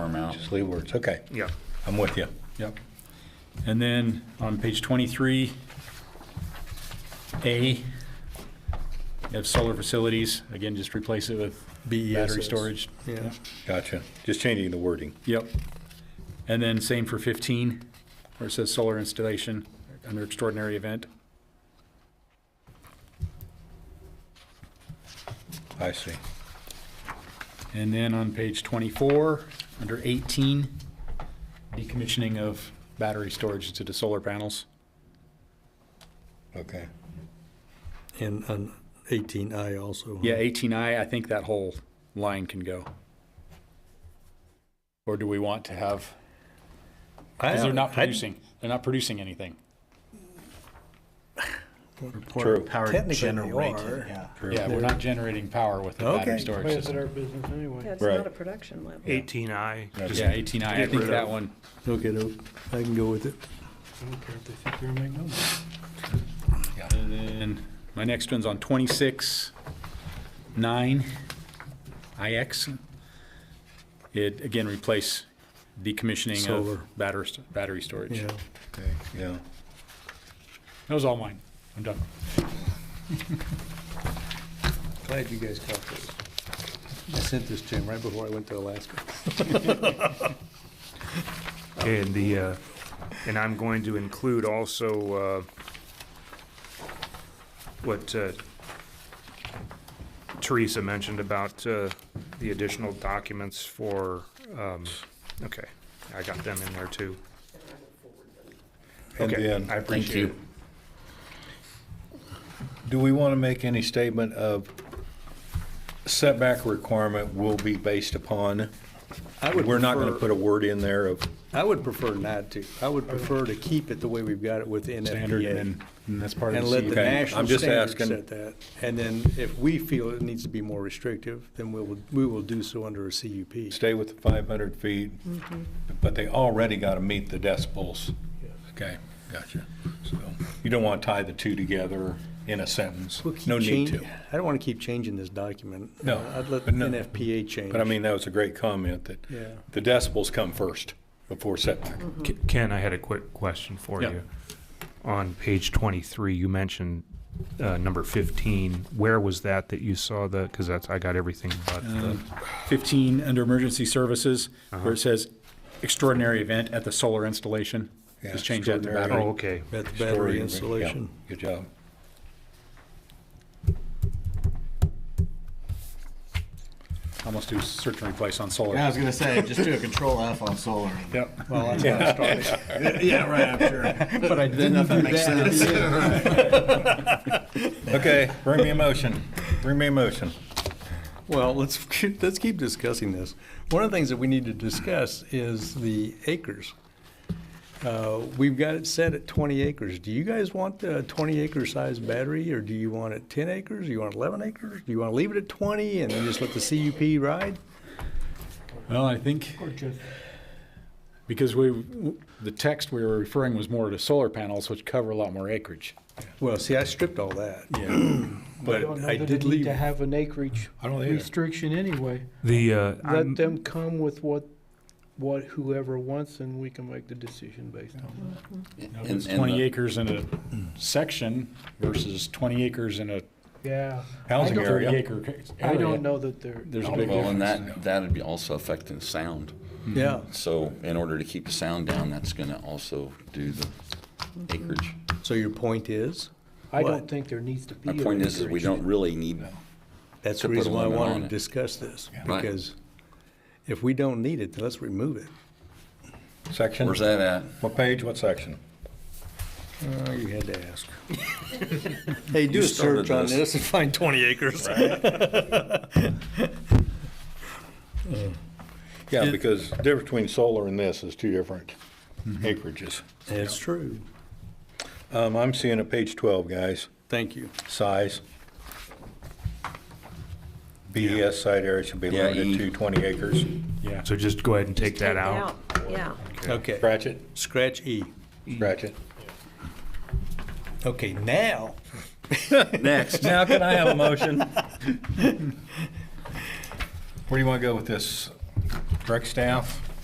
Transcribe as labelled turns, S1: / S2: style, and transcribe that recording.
S1: No.
S2: Just leave words, okay.
S1: Yeah.
S2: I'm with you. Yep.
S1: And then on page 23, A, you have solar facilities, again, just replace it with battery
S3: BESS.
S1: storage.
S3: Yeah.
S2: Gotcha. Just changing the wording.
S1: Yep. And then same for 15, where it says solar installation under extraordinary event.
S2: I see.
S1: And then on page 24, under 18, decommissioning of battery storage into the solar panels.
S2: Okay.
S3: And on 18I also. huh?
S1: Yeah, 18I, I think that whole line can go. Or do we want to have, because they're not
S3: I-
S1: producing, they're not producing anything.
S2: True.
S4: Power
S3: Technically
S4: generated,
S3: are.
S4: yeah.
S1: Yeah, we're not generating power with the
S3: Okay.
S1: battery storage
S5: It's
S1: system.
S5: our business anyway.
S6: That's not
S2: Right.
S6: a production level.
S5: Eighteen I.
S1: Yeah, 18I, I
S5: Get
S1: think
S5: rid
S1: that
S5: of-
S1: one,
S3: Okay, no, I can go with it.
S5: I don't care if they think you're gonna make no money.
S1: and then my next one's on 26, 9, IX. It, again, replace decommissioning
S3: Solar.
S1: of battery, st- battery storage.
S3: Yeah.
S1: That
S2: Okay, Yeah.
S1: was all mine, I'm done.
S3: Glad you guys caught this. I sent this to him right before I went to Alaska.
S5: And the, uh, and I'm going to include also, uh, what, uh, Teresa mentioned about, uh, the additional documents for, um, okay, I got them in there too.
S2: And
S5: Okay,
S2: then-
S5: I appreciate it.
S2: Do we want to make any statement of setback requirement will be based upon?
S3: I would
S2: We're not going to
S3: prefer-
S2: put a word in there of,
S3: I would prefer not to. I would prefer to keep it the way we've got it with
S1: Standard,
S3: NFPA.
S1: and and that's part of
S3: And
S1: the E
S3: let the
S1: CUP.
S2: Okay, I'm
S3: national
S2: just
S3: standards
S2: asking.
S3: set that. And then if we feel it needs to be more restrictive, then we will, we will do so under a CUP.
S2: stay with the 500 feet,
S3: Mm-hmm.
S2: but they already got to meet the decibels. Okay, gotcha. So you don't want to tie the two together in a sentence.
S3: We'll keep
S2: No need
S3: chan-
S2: to.
S3: I don't want to keep changing this document.
S2: No,
S3: Uh, I'd let
S2: but no.
S3: NFPA change.
S2: But I mean, that was a great comment that
S3: Yeah.
S2: the decibels come first before setback.
S4: K- Ken, I had a quick question for
S1: Yeah.
S4: you. On page 23, you mentioned uh, number 15. Where was that that you saw the, because that's, I got everything but the,
S1: 15 under emergency services, where it says extraordinary event at the solar installation.
S2: Yeah,
S1: Just change that to
S5: Uh,
S2: extraordinary.
S1: battery.
S4: oh, okay.
S3: About the
S2: Story,
S3: battery
S2: yeah.
S3: installation.
S2: Good job.
S1: Almost do search and replace on solar.
S4: Yeah.
S7: I was gonna say, just do a control F on solar.
S1: Yep.
S3: Well, that's how I started.
S7: Yeah, right, I'm sure.
S3: But I
S7: Then
S3: didn't do
S7: nothing makes
S3: that.
S7: sense.
S2: Okay, bring me a motion. Bring me a motion.
S3: Well, let's, keep- let's keep discussing this. One of the things that we need to discuss is the acres. Uh, We've got it set at 20 acres. Do you guys want a 20 acre size battery, or do you want it 10 acres? Do you want 11 acres? Do you want to leave it at 20 and then just let the CUP ride?
S1: Well, I think, because we, the text we were referring was more to solar panels, which cover a lot more acreage.
S3: Well, see, I stripped all that,
S1: Yeah.
S3: but
S5: don't know
S3: I
S5: that
S3: did
S5: they need
S3: leave,
S5: To have an acreage
S2: I don't either.
S5: restriction anyway.
S4: The, uh,
S5: Let
S4: I'm-
S5: them come with what, what whoever wants and we can make the decision based on
S1: If it's 20 acres in a section versus 20 acres in a
S5: it. Yeah.
S2: Housing
S1: thirty
S2: area.
S1: acre
S5: I don't
S1: area,
S5: know that they're.
S1: There's a big
S8: Well, and
S1: difference.
S8: that, that'd be also affecting the sound.
S3: yeah.
S8: So in order to keep the sound down, that's gonna also do the acreage.
S3: So your point is,
S5: I
S3: What?
S5: don't think there needs to be.
S8: My
S5: an
S8: point is, is we
S5: acreage.
S8: don't really need,
S3: that's
S8: To
S3: the
S8: put a
S3: reason why I
S8: limit
S3: wanted
S8: on
S3: to
S8: it.
S3: discuss this,
S8: Right.
S3: because if we don't need it, then let's remove it.
S2: Section?
S8: where's that at?
S2: What page, what section?
S3: Oh, you had to ask. Hey, do
S8: You
S3: a search
S8: started
S3: on
S8: this.
S3: this and find twenty acres.
S2: Yeah, because the difference between solar and this is two different acreages.
S3: That's true.
S2: Um, I'm seeing at page 12, guys,
S3: Thank you.
S2: size. BES site area should be
S8: Yeah,
S2: limited
S8: E.
S2: to 20 acres.
S1: yeah.
S4: So just go ahead and take that
S6: Take
S4: out.
S6: Yeah.
S3: Okay,
S2: Scratch it,
S3: scratch E.
S2: scratch it.
S3: Okay, now,
S8: Next.
S2: Now can I have a motion? Where do you want to go with this? Direct staff?